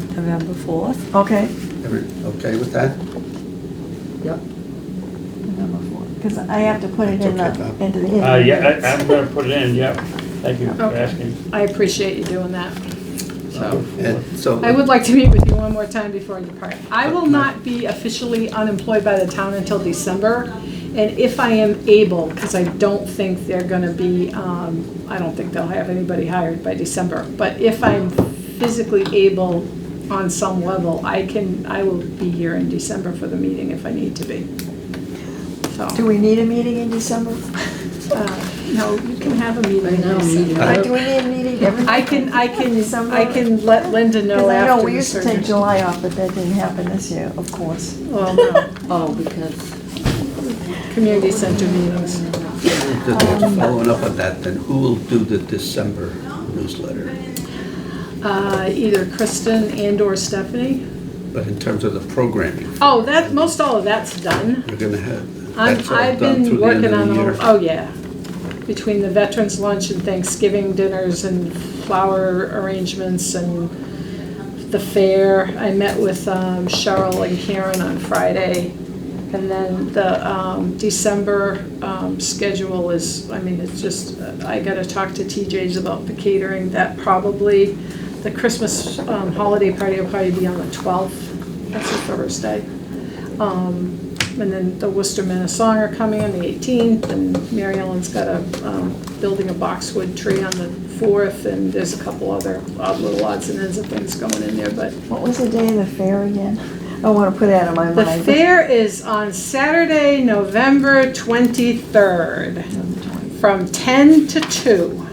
November 4th. Okay, Every- Okay with that? Yep. November fourth, because I have to put it in It's okay, the, Bob. into the. Uh, yeah, I, I'm gonna put it in, yep. Thank you for Okay. asking. I appreciate you doing that. So, And so. I would like to meet with you one more time before you depart. I will not be officially unemployed by the town until December. And if I am able, because I don't think they're gonna be, um, I don't think they'll have anybody hired by December. But if I'm physically able on some level, I can, I will be here in December for the meeting if I need to be. So. Do we need a meeting in December? Uh, No, you can have a meeting. Right now, in meeting. December. Or do we need a meeting every? I can, I can, December? I can let Linda 'Cause know I after we the used to take surgery. July off, but that didn't happen this year, of course. Well, no, Oh, because. community center meetings. Just um, Following up on that, then who will do the December newsletter? Uh, Either Kristen and/or Stephanie. But in terms of the programming, Oh, that, most all of that's done. you're gonna have, I'm- that's all I've done been through the end working on of the all, year. oh, yeah. Between the veterans lunch and Thanksgiving dinners and flower arrangements and the fair. I met with um, Cheryl and Karen on Friday. And then the um, December um, schedule is, I mean, it's just, uh, I gotta talk to TJ's about the catering. That probably, the Christmas um, holiday party will probably be on the 12th. That's a Thursday. Um, And then the Worcester Men of Song are coming on the 18th, and Mary Ellen's got a, um, building a boxwood tree on the 4th, and there's a couple other odd little odds and ends of things going in there, but What was the day of the fair again? I want to put that in my the mind. fair is on Saturday, November 23rd, from 10 to 2.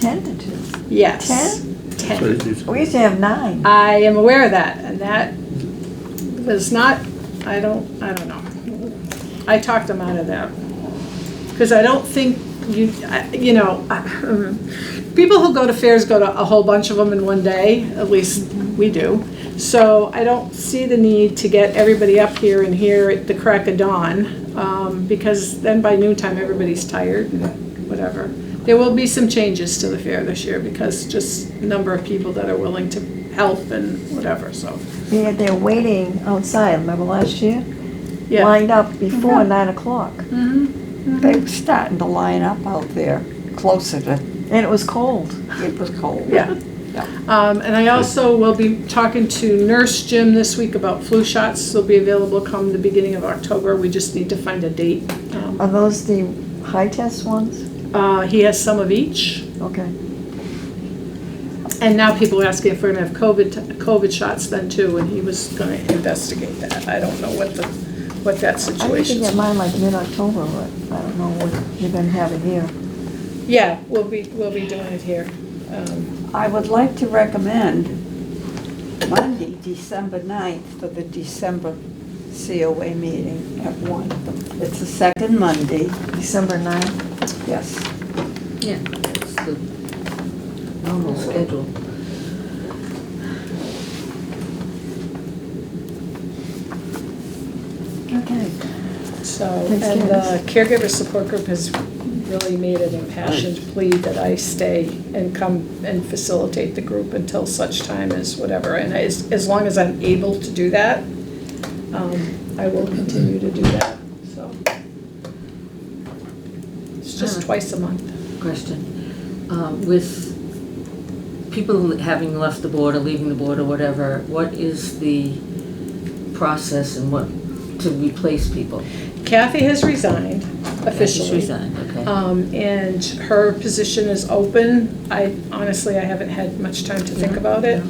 Ten to two. Yes. 10? So it's- We used to have nine. I am aware of that, and that was not, I don't, I don't know. I talked them out of that. Because I don't think you, I- you know, I- um, people who go to fairs go to a whole bunch of them in one day, at least we do. So I don't see the need to get everybody up here and here at the crack of dawn, um, because then by noontime, everybody's tired and whatever. There will be some changes to the fair this year because just number of people that are willing to help and whatever, so, They had their waiting outside, remember last year? yeah. Mm-hmm. Lined up before nine o'clock. They were starting to line up out there, closer to, And it was cold. it was cold. Yeah. Yeah. Um, and I also will be talking to Nurse Jim this week about flu shots. They'll be available come the beginning of October. We just need to find a date. Um, Are those the high test ones? Uh, he has some of each. Okay. And now people are asking if we're gonna have COVID, t- COVID shots then too, and he was gonna investigate that. I don't know what the, what that I need to situation get is. mine like mid-October, but I don't know what you're gonna have it here. Yeah, we'll be, we'll be doing it here. Um, I would like to recommend Monday, December 9th, for the December COA meeting at one. It's the second Monday, December ninth. yes. Yeah, it's the normal schedule. Okay. So, Thanks, and the caregiver support group has really made an impassioned plea that I stay and come and facilitate the group until such time as whatever. And as, as long as I'm able to do that, um, I will continue to do that, so. It's just Uh-huh. twice a month. Question. Um, With people having left the board or leaving the board or whatever, what is the process and what, to replace people? Kathy has resigned She's officially. resigned, okay. Um, and her position is open. I honestly, I haven't had much time to think Yeah, about it.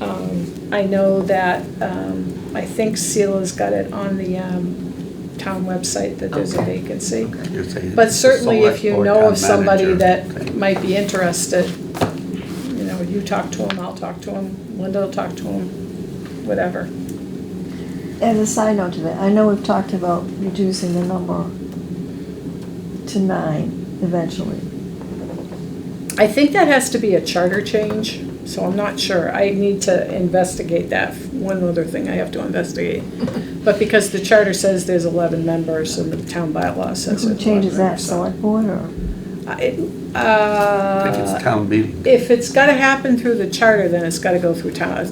Um, I know that, um, I think Cela's got it on the, um, town website that there's a Okay. vacancy. you're saying But it's the certainly if select you board, know town of somebody manager. that Okay. might be interested, you know, you talk to him, I'll talk to him, Linda will talk to him, whatever. As a side note to that, I know we've talked about reducing the number to nine eventually. I think that has to be a charter change, so I'm not sure. I need to investigate that. One other thing I have to investigate. But because the charter says there's 11 members and the town bylaw says Who there's changes 11 that, members, so- select board or? I- I think it's uh, town meeting. If it's gotta happen through the charter, then it's gotta go through town,